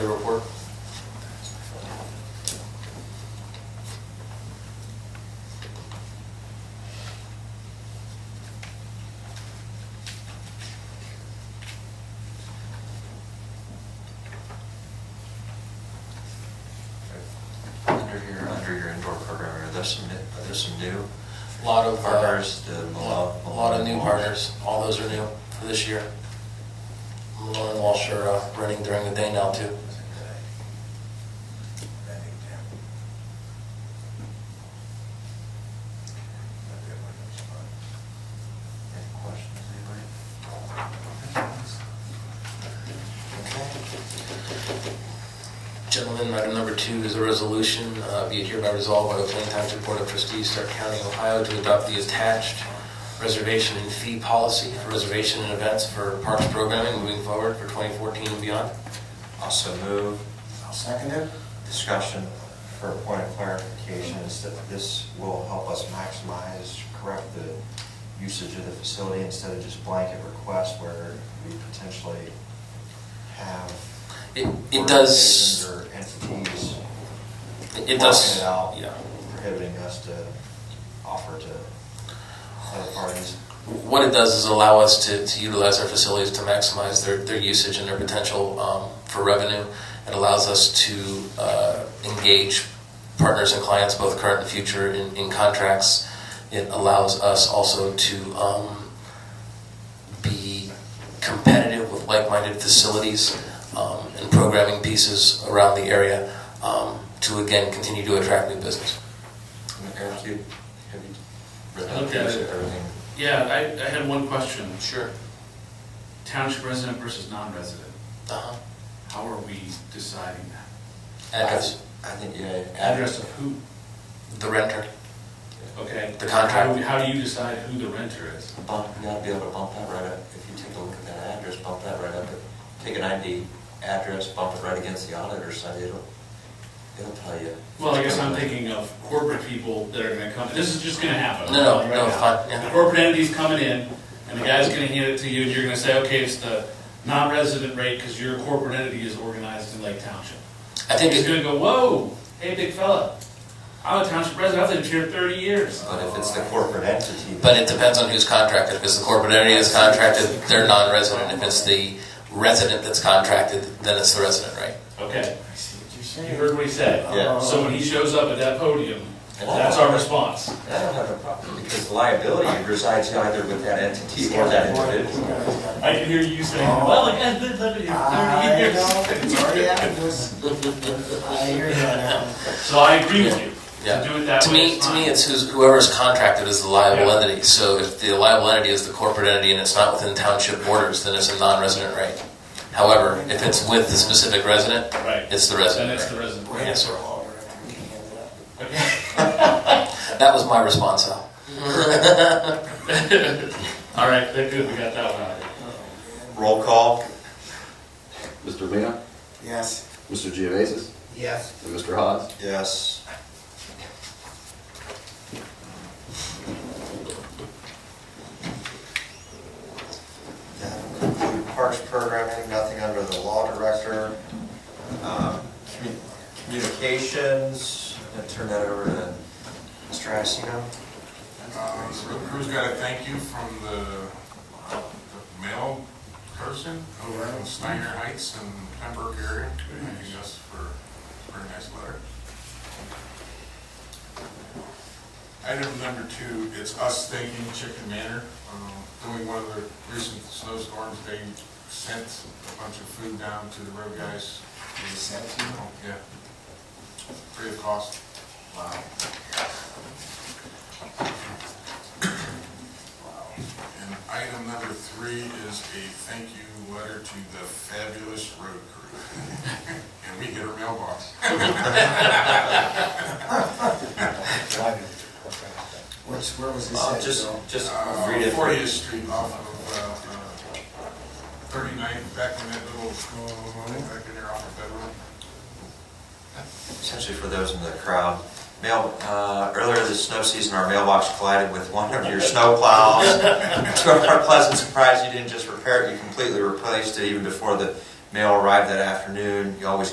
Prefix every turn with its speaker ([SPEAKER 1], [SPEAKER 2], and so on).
[SPEAKER 1] your report?
[SPEAKER 2] Under your, under your indoor program, are there some, new- are there some new?
[SPEAKER 1] Lot of. uh,
[SPEAKER 2] Partners, the Malone-
[SPEAKER 1] A lot of new
[SPEAKER 2] Malone.
[SPEAKER 1] partners, all those are new for this year. Malone and Walsh are uh, running during the day now too.
[SPEAKER 2] Any questions, anybody?
[SPEAKER 1] Gentlemen, item number two is a resolution, uh, be it hereby resolved by the Plain Township Board of Trustees, Stark County, Ohio, to adopt the attached reservation and fee policy for reservation and events for parks programming moving forward for 2014 and beyond.
[SPEAKER 2] Also move,
[SPEAKER 3] I'll second it.
[SPEAKER 2] discussion for a point of clarification is that this will help us maximize, correct the usage of the facility instead of just blanket request where we potentially have.
[SPEAKER 1] It it does,
[SPEAKER 2] organizations Or entities
[SPEAKER 1] it does.
[SPEAKER 2] working it out,
[SPEAKER 1] Yeah.
[SPEAKER 2] prohibiting us to offer to other parties.
[SPEAKER 1] What it does is allow us to, to utilize our facilities to maximize their, their usage and their potential um, for revenue. It allows us to uh, engage partners and clients, both current and future, in, in contracts. It allows us also to um, be competitive with like minded facilities um, and programming pieces around the area um, to again continue to attract new business.
[SPEAKER 2] Eric, you, have you read
[SPEAKER 4] I looked at
[SPEAKER 2] these,
[SPEAKER 4] it.
[SPEAKER 2] everything?
[SPEAKER 4] Yeah, I, I had one question.
[SPEAKER 1] Sure.
[SPEAKER 4] Township resident versus non-resident,
[SPEAKER 1] Uh-huh.
[SPEAKER 4] how are we deciding that?
[SPEAKER 1] Address,
[SPEAKER 2] I think, yeah.
[SPEAKER 4] Address of who?
[SPEAKER 1] the renter.
[SPEAKER 4] Okay.
[SPEAKER 1] The
[SPEAKER 4] How
[SPEAKER 1] contract.
[SPEAKER 4] do, we- how do you decide who the renter is?
[SPEAKER 2] Bump, you gotta be able to bump that right up, if you take a look at that address, bump that right up, take an ID address, bump it right against the auditor's side, it'll, it'll tell you.
[SPEAKER 4] Well, I guess I'm thinking of corporate people that are gonna come, this is just gonna happen.
[SPEAKER 1] No, no,
[SPEAKER 4] I'm telling you
[SPEAKER 1] no,
[SPEAKER 4] right
[SPEAKER 1] it's
[SPEAKER 4] now.
[SPEAKER 1] fine, yeah.
[SPEAKER 4] The corporate entity's coming in, and the guy's gonna hand it to you, and you're gonna say, okay, it's the non-resident rate, because your corporate entity is organized in Lake Township.
[SPEAKER 1] I think
[SPEAKER 4] He's
[SPEAKER 1] it,
[SPEAKER 4] gonna go, whoa, hey, big fella, I'm a township resident, I've lived here thirty years.
[SPEAKER 2] But if it's the corporate entity.
[SPEAKER 1] But it depends on who's contracted. If it's the corporate entity that's contracted, they're non-resident. If it's the resident that's contracted, then it's the resident, right?
[SPEAKER 4] Okay.
[SPEAKER 3] I see what you're
[SPEAKER 4] You
[SPEAKER 3] saying.
[SPEAKER 4] heard what he said. Uh,
[SPEAKER 2] Yeah.
[SPEAKER 4] So when he shows up at that podium, that's our response.
[SPEAKER 2] I don't have a problem, because liability resides either with that entity or that individual.
[SPEAKER 4] I can hear you saying, well, like, I've been living here
[SPEAKER 3] I
[SPEAKER 4] thirty years.
[SPEAKER 3] know, yeah, it was, I hear you on that one.
[SPEAKER 4] So I agree with you.
[SPEAKER 1] Yeah.
[SPEAKER 4] To do it that
[SPEAKER 1] To
[SPEAKER 4] way
[SPEAKER 1] me,
[SPEAKER 4] is
[SPEAKER 1] to me,
[SPEAKER 4] fine.
[SPEAKER 1] it's who's, whoever's contracted is the liable
[SPEAKER 4] Yeah.
[SPEAKER 1] entity. So if the liable entity is the corporate entity and it's not within township borders, then it's a non-resident rate. However, if it's with the specific resident,
[SPEAKER 4] Right.
[SPEAKER 1] it's the
[SPEAKER 4] Then it's
[SPEAKER 1] resident
[SPEAKER 4] the
[SPEAKER 1] rate.
[SPEAKER 4] resident.
[SPEAKER 1] Yes, sir.
[SPEAKER 3] We can hand it up.
[SPEAKER 4] Okay.
[SPEAKER 1] That was my response, Al.
[SPEAKER 4] All right, then good, we got that one out.
[SPEAKER 2] Roll call?
[SPEAKER 5] Mr. Lena,
[SPEAKER 3] Yes.
[SPEAKER 5] Mr. Geovasis,
[SPEAKER 3] Yes.
[SPEAKER 5] and Mr. Hawes.
[SPEAKER 2] Yes. That would conclude Parks programming, nothing under the law director. Um, commu- Communications, I'm gonna turn that over to Mr. Iacino.
[SPEAKER 6] Um, Real Crew's got a thank you from the the mail person over in Steiner Heights and Pembroke area, thanking us for a very nice letter. Item number two, it's us thanking Chicken Manor. Um, During one of the recent snowstorms, they sent a bunch of food down to the road guys.
[SPEAKER 3] You said it, you know.
[SPEAKER 6] Yeah. Free of cost.
[SPEAKER 3] Wow.
[SPEAKER 6] And item number three is a thank you letter to the fabulous road crew. And we get our mailbox.
[SPEAKER 3] Which, where was this
[SPEAKER 2] Uh,
[SPEAKER 3] at,
[SPEAKER 2] Just,
[SPEAKER 3] Joe?
[SPEAKER 2] just
[SPEAKER 6] Uh,
[SPEAKER 2] read it.
[SPEAKER 6] 40th Street off of uh, uh, 39th, back in that little, uh, back in there off of Bedrock.
[SPEAKER 2] Essentially for those in the crowd, mail, uh, earlier this snow season, our mailbox collided with one of your snow plows. To our pleasant surprise, you didn't just repair it, you completely replaced it even before the mail arrived that afternoon. You always go